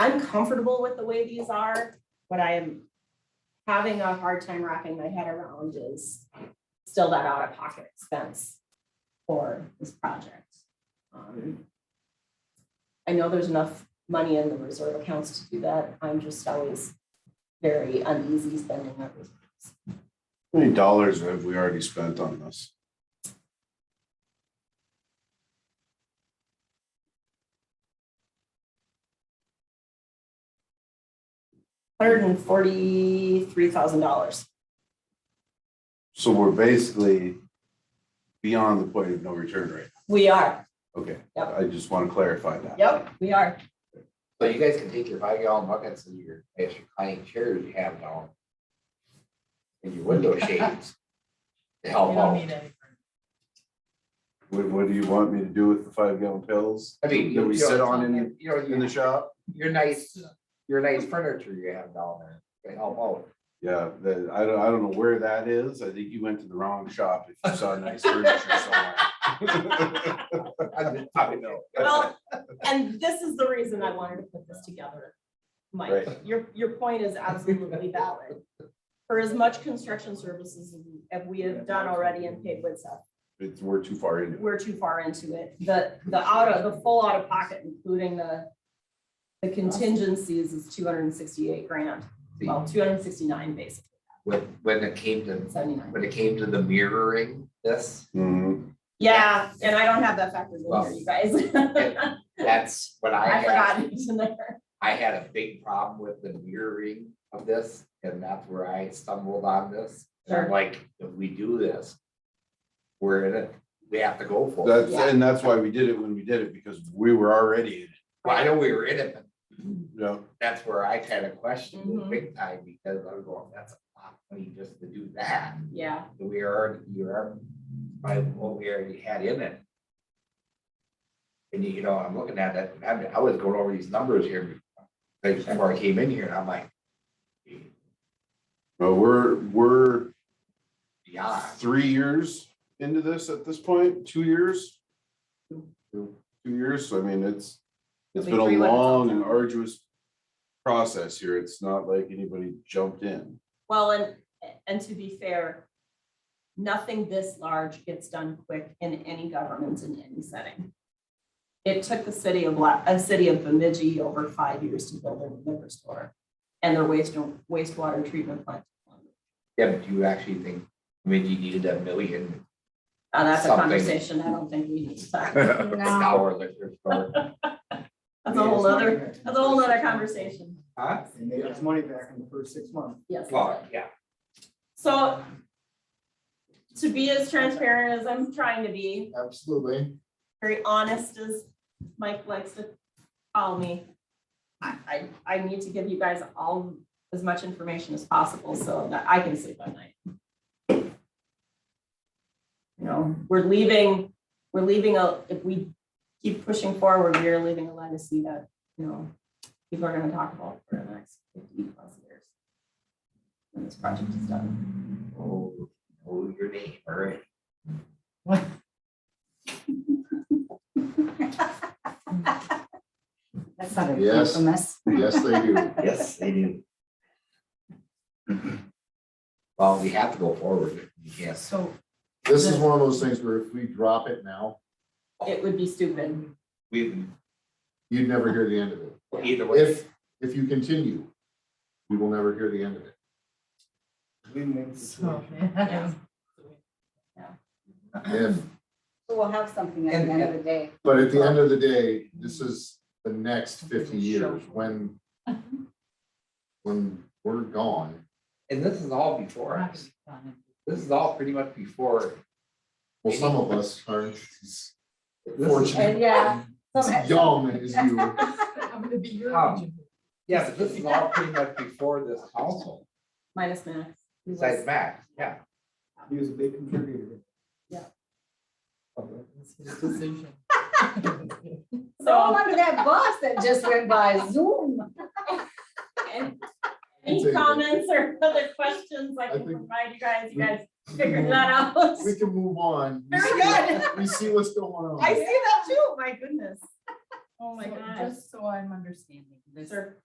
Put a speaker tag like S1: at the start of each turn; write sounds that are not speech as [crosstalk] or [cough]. S1: I'm comfortable with the way these are, but I am having a hard time wrapping my head around is still that out of pocket expense for this project. Um, I know there's enough money in the reserve accounts to do that. I'm just always very uneasy spending that. reserve.
S2: How many dollars have we already spent on this?
S1: Hundred and forty-three thousand dollars.
S2: So we're basically beyond the point of no return rate.
S1: We are.
S2: Okay,
S1: Yep.
S2: I just want to clarify that.
S1: Yep, we are.
S3: So you guys can take your five gallon buckets and your, as your client chairs you have down. And
S1: [laughs]
S3: your window shades. To help out.
S2: What, what do you want me to do with the five gallon pills
S3: I mean.
S2: that we
S3: you know,
S2: sit on in,
S3: You know,
S2: in the
S3: you-
S2: shop?
S3: your nice, your nice furniture you have down there to help out.
S2: Yeah, that, I don't, I don't know where that is. I think you went to the wrong shop if you saw nice
S3: [laughs]
S2: furniture somewhere. [laughs]
S3: I'm just- I know.
S1: Well, and this is the reason I wanted to put this together. Mike,
S2: Right.
S1: your, your point is absolutely valid. For as much construction services as we have done already and paid with stuff,
S2: It's, we're too far into it.
S1: we're too far into it. The, the out of, the full out of pocket, including the, the contingencies is two hundred and sixty-eight grand, [laughs] well, two hundred and sixty-nine basically,
S3: When, when it came to,
S1: seventy-nine.
S3: when it came to the mirroring this,
S2: Mhm.
S1: Yeah, and I don't have that factored in here,
S3: Well,
S1: you guys. [laughs]
S3: that's what I
S1: I
S3: had.
S1: forgot it's in there.
S3: I had a big problem with the mirroring of this, and that's where I stumbled on this. And
S1: Sure.
S3: I'm like, if we do this, we're in it, we have to go for it.
S2: That's, and that's why we did it when we did it, because we were already,
S3: Well, I know we were in it, but
S2: you know,
S3: that's where I kind of questioned
S1: Mhm.
S3: it big time, because I was going, that's a lot of money just to do that.
S1: Yeah,
S3: We are, you are, by what we already had in it. And you, you know, I'm looking at it, and I, I was going over these numbers here, like, before I came in here, and I'm like,
S2: but we're, we're
S3: beyond.
S2: three years into this at this point, two years?
S3: Two.
S2: Two years, so I mean, it's, it's
S1: It'll be
S2: been
S1: three when
S2: a
S1: it's all
S2: long and
S1: done.
S2: arduous process here. It's not like anybody jumped in.
S1: well, and, and to be fair, nothing this large gets done quick in any government in any setting. It took the city of, La- a city of Bemidji over five years to build their liquor store and their waste, wastewater treatment plant.
S3: Yeah, but do you actually think Mindy needed a million
S1: Now, that's a
S3: Something.
S1: conversation I don't think we need to talk.
S3: dollar liquor
S1: [laughs]
S3: store?
S1: That's a whole other, that's a whole other conversation.
S3: Huh?
S4: And they got money back in the first six months.
S1: Yes.
S3: Well, yeah,
S1: So to be as transparent as I'm trying to be,
S4: Absolutely.
S1: very honest as Mike likes to call me. I, I, I need to give you guys all as much information as possible so that I can sleep at night. You know, we're leaving, we're leaving a, if we keep pushing forward, we are leaving a legacy that, you know, people are gonna talk about for the next fifty plus years. When this project is done.
S3: oh, oh, your name, all right.
S5: That's not a
S4: Yes.
S5: infamous.
S4: Yes,
S2: [laughs]
S4: they do.
S3: Yes, they do. Well, we have to go forward, yes.
S5: So
S4: This is one of those things where if we drop it now,
S1: It would be stupid.
S3: We,
S4: you'd never hear the end of it.
S3: either way,
S4: If, if you continue, we will never hear the end of it.
S6: So,
S1: Yeah.
S4: If,
S5: we'll have something at the
S3: And-
S5: end of the day.
S4: but at the end of the day, this is the next fifty years when, when we're gone.
S3: and this is all before us. This is all pretty much before.
S4: Well, some of us aren't as fortunate,
S5: And
S6: [laughs]
S5: yeah.
S4: as young as you.
S6: I'm gonna be your
S3: Um,
S6: agent.
S3: Yeah, but this is all pretty much before this council,
S1: Minus Max. He was-
S3: besides Max, yeah.
S4: He was a big contributor.
S6: It's his decision.
S5: So
S1: So
S5: under that bus that just went by Zoom.
S4: [laughs]
S1: And Any
S4: It's a-
S1: comments or other questions I
S4: I
S1: can
S4: think-
S1: provide you guys, you
S4: we-
S1: guys figure that out.
S4: We can move on. We
S1: Very
S4: see-
S1: good.
S4: We see what's going on.
S1: I see that too, my goodness. Oh my
S6: So
S1: gosh.
S6: Just so I'm understanding, this
S1: Sure.